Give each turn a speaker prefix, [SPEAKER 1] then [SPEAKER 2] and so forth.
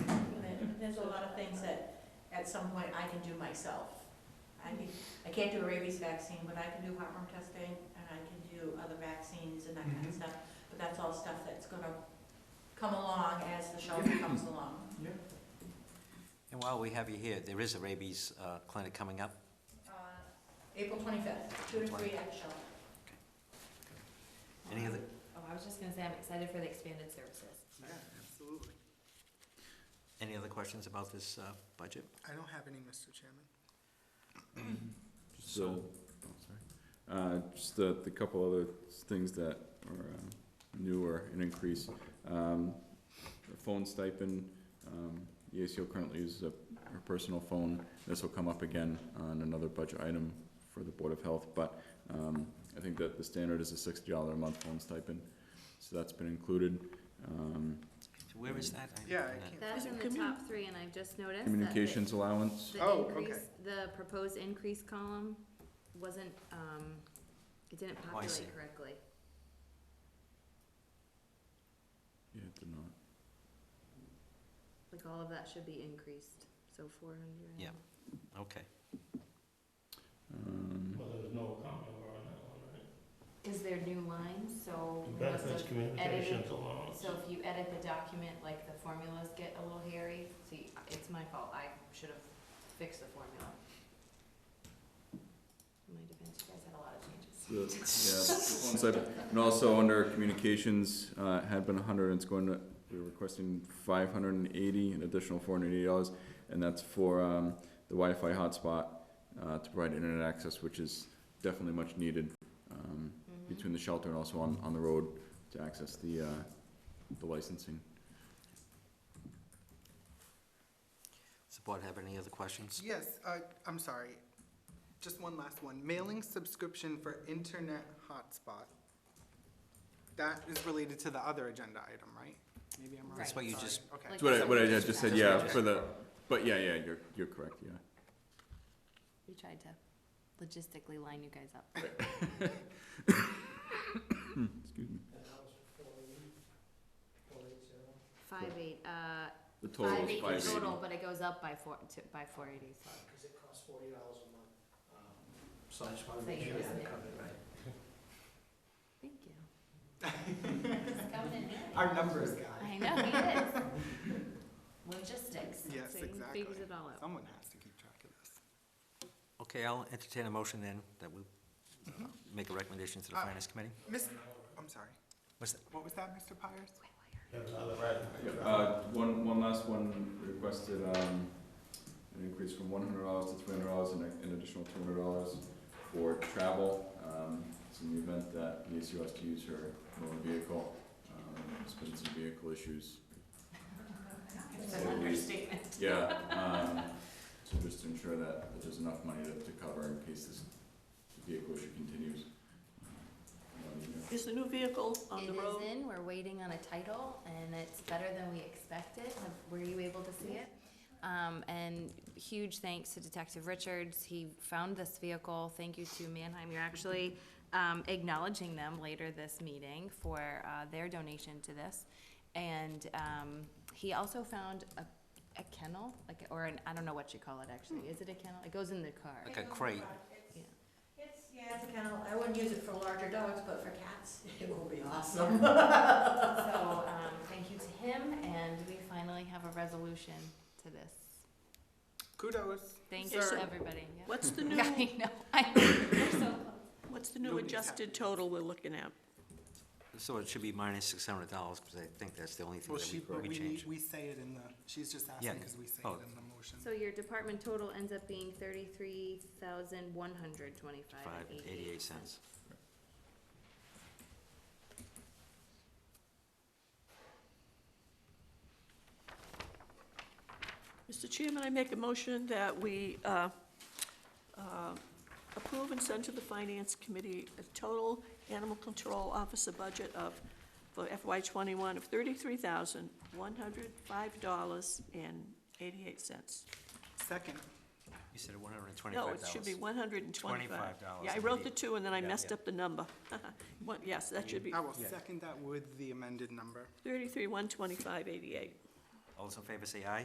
[SPEAKER 1] at some point I can do myself. I can, I can't do a rabies vaccine, but I can do heartworm testing and I can do other vaccines and that kind of
[SPEAKER 2] Mm-hmm.
[SPEAKER 3] Mhm.
[SPEAKER 1] stuff. But that's all stuff that's gonna come along as the shelter comes along.
[SPEAKER 2] And while we have you here, there is a rabies uh, clinic coming up.
[SPEAKER 1] Uh, April twenty-fifth, two to three at the shelter.
[SPEAKER 2] Any other,
[SPEAKER 4] Oh, I was just gonna say, I'm excited for the expanded services.
[SPEAKER 3] Yeah, absolutely.
[SPEAKER 2] any other questions about this uh, budget?
[SPEAKER 3] I don't have any, Mr. Chairman.
[SPEAKER 5] So, uh, just the, the couple other things that are uh, new or an increase. Um, the Phone stipend, um, the ACO currently uses a, her personal phone. This will come up again on another budget item for the Board of Health, but, um, I think that the standard is a sixty dollar a month phone stipend. So that's been included. Um,
[SPEAKER 2] So Where is that? I-
[SPEAKER 3] Yeah, I
[SPEAKER 2] uh,
[SPEAKER 3] can't.
[SPEAKER 4] That's in the top three, and I've just noticed that the,
[SPEAKER 5] communications allowance,
[SPEAKER 4] the
[SPEAKER 3] Oh,
[SPEAKER 4] increase,
[SPEAKER 3] okay.
[SPEAKER 4] the proposed increase column wasn't, um, it didn't
[SPEAKER 2] Oh, I see.
[SPEAKER 4] populate correctly.
[SPEAKER 5] yeah, it did not.
[SPEAKER 4] Like, all of that should be increased, so four hundred.
[SPEAKER 2] Yeah. Okay.
[SPEAKER 5] Um,
[SPEAKER 6] Well, there was no comment on that one, right?
[SPEAKER 4] Is there new lines, so?
[SPEAKER 6] The
[SPEAKER 4] must
[SPEAKER 6] benefits
[SPEAKER 4] have
[SPEAKER 6] communications allowance.
[SPEAKER 4] So if you edit the document, like the formulas get a little hairy, see, it's my fault, I should have fixed the formula. In my defense, you guys had a lot of changes.
[SPEAKER 5] The- yeah, so- And also under communications, uh, it had been a hundred, and it's going to, we're requesting five hundred and eighty, an additional four hundred and eighty dollars. And that's for, um, the Wi-Fi hotspot, uh, to provide internet access, which is definitely much needed, um,
[SPEAKER 4] Mhm.
[SPEAKER 5] between the shelter and also on, on the road to access the, uh, the licensing.
[SPEAKER 2] Does the board have any other questions?
[SPEAKER 3] Yes, uh, I'm sorry. Just one last one. Mailing subscription for internet hotspot. That is related to the other agenda item, right? Maybe I'm wrong.
[SPEAKER 4] That's what
[SPEAKER 2] you
[SPEAKER 3] Sorry.
[SPEAKER 2] just-
[SPEAKER 3] Okay.
[SPEAKER 4] Like-
[SPEAKER 5] That's what I, what I just said, yeah,
[SPEAKER 4] Yeah.
[SPEAKER 5] for the, but yeah, yeah, you're, you're correct, yeah.
[SPEAKER 4] We tried to logistically line you guys up.
[SPEAKER 5] Excuse me.
[SPEAKER 6] And that was four eighty, four eight zero.
[SPEAKER 4] Five eight, uh,
[SPEAKER 5] The total
[SPEAKER 4] five
[SPEAKER 5] is
[SPEAKER 4] eight
[SPEAKER 5] five eighty.
[SPEAKER 4] total, but it goes up by four, to, by four eighty, so.
[SPEAKER 6] Cause it costs forty dollars a month. Um, So I just wanted to
[SPEAKER 4] Thank
[SPEAKER 6] make sure
[SPEAKER 4] you.
[SPEAKER 6] I had covered right.
[SPEAKER 4] Thank you. He's coming in handy.
[SPEAKER 3] Our numbers guy.
[SPEAKER 4] I know, he is. Logistics.
[SPEAKER 3] Yes,
[SPEAKER 4] So he
[SPEAKER 3] exactly.
[SPEAKER 4] Figures it all out.
[SPEAKER 3] Someone has to keep track of this.
[SPEAKER 2] Okay, I'll entertain a motion then that we uh, make a recommendation to the
[SPEAKER 3] Uh,
[SPEAKER 2] finance committee.
[SPEAKER 3] Miss, I'm sorry.
[SPEAKER 2] What's that?
[SPEAKER 3] What was that, Mr. Pires?
[SPEAKER 6] Have another right.
[SPEAKER 5] Uh, one, one last one requested, um, an increase from one hundred dollars to three hundred dollars and a- an additional two hundred dollars for travel. Um, it's in the event that the ACO has to use her motor vehicle, um, there's been some vehicle issues.
[SPEAKER 1] It's
[SPEAKER 5] So
[SPEAKER 1] an
[SPEAKER 5] we-
[SPEAKER 1] understatement.
[SPEAKER 5] Yeah, um, so just to ensure that there's enough money to, to cover in case this vehicle issue continues. Um, you know,
[SPEAKER 7] Is the new vehicle on
[SPEAKER 4] It
[SPEAKER 7] the road?
[SPEAKER 4] is in, we're waiting on a title, and it's better than we expected. Have- Were you able to see it? Um, and huge thanks to Detective Richards, he found this vehicle. Thank you to Mannheim, you're actually, um, acknowledging them later this meeting for, uh, their donation to this. And, um, he also found a, a kennel, like, or an, I don't know what you call it actually. Is it a kennel? It goes in the car.
[SPEAKER 2] Like a crate.
[SPEAKER 1] It's, it's- yeah, it's a kennel. I wouldn't use it for larger dogs, but for cats, it will be awesome.
[SPEAKER 4] So, um, thank you to him, and we finally have a resolution to this.
[SPEAKER 3] Kudos.
[SPEAKER 4] Thank
[SPEAKER 7] Okay,
[SPEAKER 4] you,
[SPEAKER 7] so-
[SPEAKER 4] everybody. Yeah.
[SPEAKER 7] What's the new,
[SPEAKER 4] Yeah, I know, I, we're so close.
[SPEAKER 7] what's the new
[SPEAKER 3] Nobody's
[SPEAKER 7] adjusted
[SPEAKER 3] happy.
[SPEAKER 7] total we're looking at?
[SPEAKER 2] So it should be minus six hundred dollars, because I think that's the only thing
[SPEAKER 3] Well,
[SPEAKER 2] that
[SPEAKER 3] she,
[SPEAKER 2] we-
[SPEAKER 3] but
[SPEAKER 2] we
[SPEAKER 3] we,
[SPEAKER 2] changed.
[SPEAKER 3] we say it in the, she's just asking
[SPEAKER 2] Yeah.
[SPEAKER 3] because we say
[SPEAKER 2] Oh.
[SPEAKER 3] it in the motion.
[SPEAKER 4] So your department total ends up being thirty-three thousand one hundred twenty-five
[SPEAKER 2] Five
[SPEAKER 4] and
[SPEAKER 2] and eighty-eight cents.
[SPEAKER 7] Mr. Chairman, I make a motion that we uh, uh, approve and send to the Finance Committee a total animal control officer budget of, for FY twenty-one of thirty-three thousand, one hundred five dollars and eighty-eight cents.
[SPEAKER 3] Second,
[SPEAKER 2] You said one hundred and twenty-five
[SPEAKER 7] No,
[SPEAKER 2] dollars.
[SPEAKER 7] it should be one hundred and twenty-five.
[SPEAKER 2] $25
[SPEAKER 7] Yeah, I wrote the
[SPEAKER 2] indeed.
[SPEAKER 7] two and then I
[SPEAKER 2] Yeah,
[SPEAKER 7] messed
[SPEAKER 2] yeah.
[SPEAKER 7] up the number. One- Yes, that should be
[SPEAKER 3] I will
[SPEAKER 2] Yeah.
[SPEAKER 3] second that with the amended number.
[SPEAKER 7] thirty-three, one twenty-five, eighty-eight.
[SPEAKER 2] All those in favor say aye.